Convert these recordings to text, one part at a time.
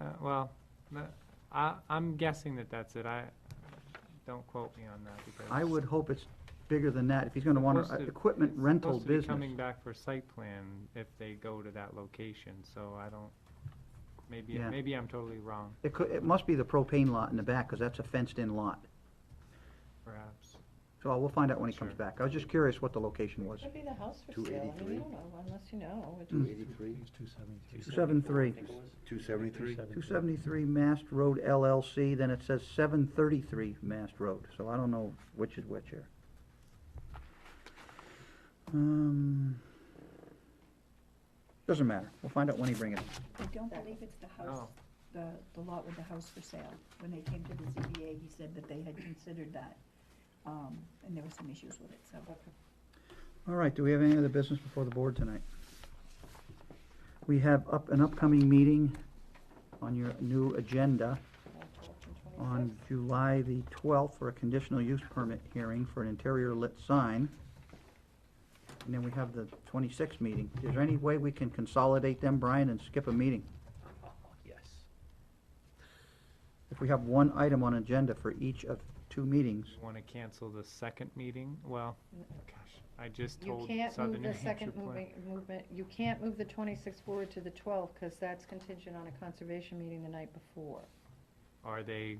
uh, well, no, I, I'm guessing that that's it. I, don't quote me on that because. I would hope it's bigger than that, if he's gonna want Supposed an to- equipment it's rental supposed to be business. Coming back for site plan if they go to that location, so I don't, maybe, Yeah. maybe I'm totally wrong, It could, it must be the propane lot in the back, because that's a fenced-in lot. perhaps. So we'll find out when he comes Sure. back. I was just curious what the location was. Could be the house for Two sale, I mean, eighty-three. you don't know, unless you know. It's- Two eighty-three, It's two seventy-three. Seven three. two seventy-three? Two seventy-three Mast Road LLC, then it says seven thirty-three Mast Road, so I don't know which is which here. Um, Doesn't matter, we'll find out when he brings it. I don't believe it's the house, Oh. the, the lot with the house for sale. When they came to the ZBA, he said that they had considered that, um, and there were some issues with it, so. All right, do we have any other business before the board tonight? We have up, an upcoming meeting on your new agenda on July the twelfth for a conditional use permit hearing for an interior lit sign. And then we have the twenty-sixth meeting. Is there any way we can consolidate them, Brian, and skip a meeting? Yes. If we have one item on agenda for each of two meetings, Want to cancel the second meeting? Well, gosh, I just You told can't move Southern New the Hampshire second Plan. moving, movement, you can't move the twenty-sixth forward to the twelfth, because that's contingent on a conservation meeting the night before. Are they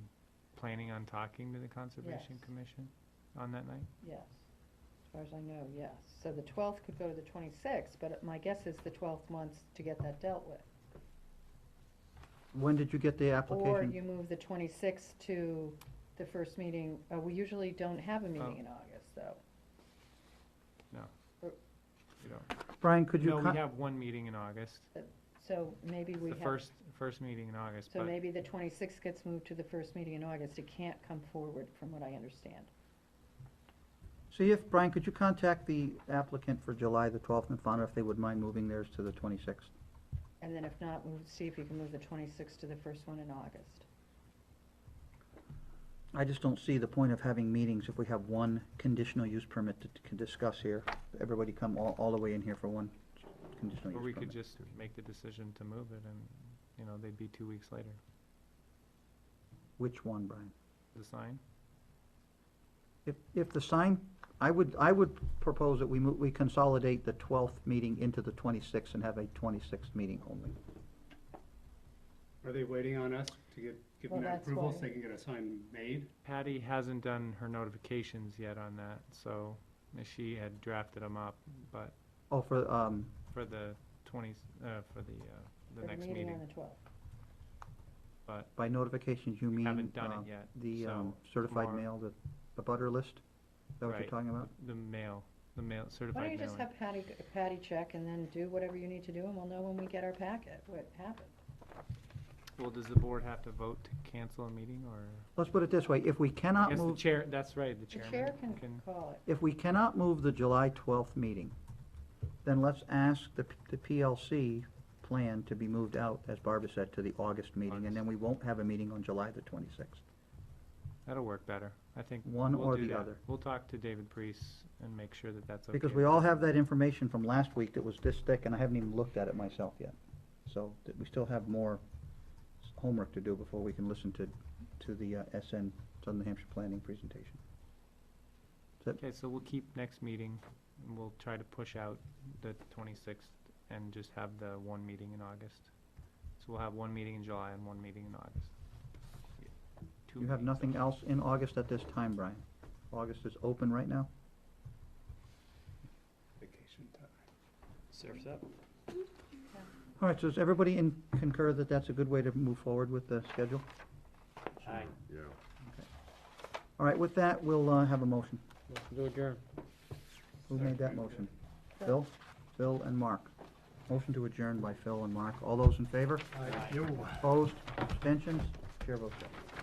planning on talking to the Conservation Yes. Commission on that night? Yes. As far as I know, yes. So the twelfth could go to the twenty-sixth, but my guess is the twelfth wants to get that dealt with. when did you get the Or application? you move the twenty-sixth to the first meeting, uh, we usually don't have Oh. a meeting in August, though. You don't- Brian, could you? No, con- we have one meeting in August, So maybe we the have. first, first meeting in August, So but maybe the twenty-sixth gets moved to the first meeting in August, it can't come forward, from what I understand. See if, Brian, could you contact the applicant for July the twelfth and find out if they would mind moving theirs to the twenty-sixth? And then if not, we'll see if you can move the twenty-sixth to the first one in August. I just don't see the point of having meetings if we have one conditional use permit to, to discuss here. Everybody come all, all the way in here for one conditional Or we use could permit. just make the decision to move it and, you know, they'd be two weeks later. Which one, Brian? The sign? If, if the sign, I would, I would propose that we mo- we consolidate the twelfth meeting into the twenty-sixth and have a twenty-sixth meeting only. Are they waiting on us to get, give Well, them that that's approval so why- they can get a sign made? Patty hasn't done her notifications yet on that, so she had drafted them up, but Oh, for, um, for the twenty, uh, for the, uh, the For next on meeting, the twelfth. but by notifications, you mean? haven't done uh, it yet. The, so um, certified tomorrow- mail, the, the butter list? Is that what you're Right. talking about? The mail, the mail, Why don't you certified just mailing. have Patty, g- Patty check and then do whatever you need to do, and we'll know when we get our packet, what happened. Well, does the board have to vote to cancel a meeting or? Let's put it this way, if we I cannot guess the move, chair, that's right, the The chairman. chair can call it. if we cannot move the July twelfth meeting, then let's ask the, the PLC plan to be moved out, as Barbara said, to the August meeting, and then we won't have a meeting on July the twenty-sixth. That'll work better, I think. One we'll or do the that. other. We'll talk to David Priest and make sure that that's okay. Because we all have that information from last week that was this thick, and I haven't even looked at it myself yet. So, that we still have more s- homework to do before we can listen to, to the uh, SN, Southern New Hampshire Planning presentation. Okay, so we'll keep next meeting, and we'll try to push out the twenty-sixth and just have the one meeting in August. So we'll have one meeting in July and one meeting in August. Two You have meetings. nothing else in August at this time, Brian? August is open right now? Vacation time. Surf's up. All right, so does everybody in concur that that's a good way to move forward with the schedule? Aye. Yeah. All right, with that, we'll uh, have a motion. Motion to adjourn. Who made that motion? Phil? Phil and Mark. Motion to adjourn by Phil and Mark. All those in favor? Aye. Opposed? Abstentions? Chair votes aye.